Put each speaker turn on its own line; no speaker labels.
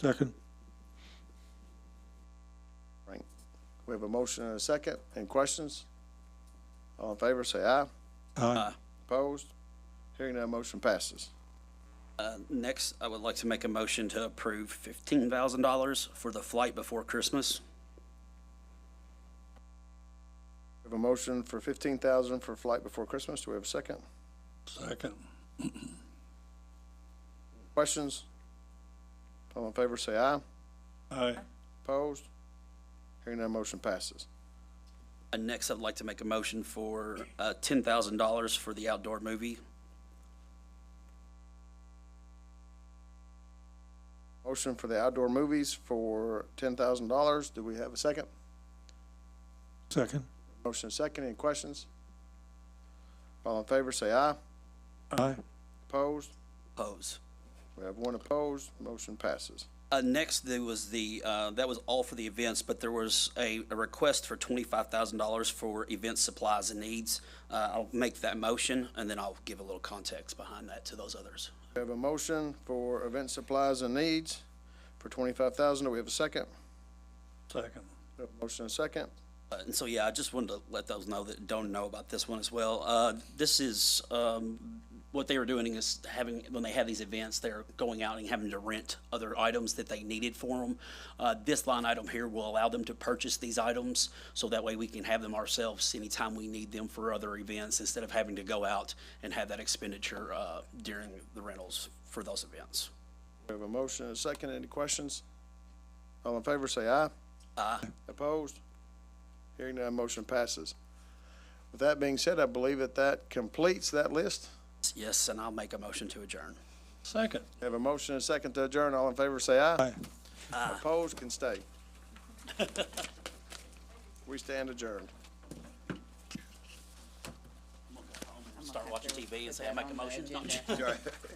Second.
Right. We have a motion and a second. Any questions? All in favor, say aye.
Aye.
Opposed? Hearing none, motion passes.
Uh, Next, I would like to make a motion to approve fifteen thousand dollars for the flight before Christmas.
We have a motion for fifteen thousand for flight before Christmas. Do we have a second?
Second.
Questions? All in favor, say aye.
Aye.
Opposed? Hearing none, motion passes.
And Uh, next, I'd like to make a motion for uh, ten thousand dollars for the outdoor movie.
Motion for the outdoor movies for ten thousand dollars. Do we have a second?
Second.
Motion and second. Any questions? All in favor, say aye.
Aye.
Opposed?
Pose.
We have one opposed. Motion passes.
Uh, Next, there was the, uh, that was all for the events, but there was a a request for twenty-five thousand dollars for event supplies and needs. Uh, I'll make that motion, and then I'll give a little context behind that to those others.
We have a motion for event supplies and needs for twenty-five thousand. Do we have a second?
Second.
We have a Motion and second.
Uh, And so, yeah, I just wanted to let those know that don't know about this one as well. Uh, This is, um, what they were doing is having, when they have these events, they're going out and having to rent other items that they needed for them. This line item here will allow them to purchase these items, so that way we can have them ourselves anytime we need them for other events, instead of having to go out and have that expenditure uh, during the rentals for those events.
We have a motion and a second. Any questions? All in favor, say aye.
Aye.
Opposed? Hearing none, motion passes. With that being said, I believe that that completes that list.
Yes, and I'll make a motion to adjourn.
Second.
We Have a motion and a second to adjourn. All in favor, say aye.
Aye.
Opposed can stay. We stand adjourned.
Start watching TV and say, I make a motion? No, I'm just-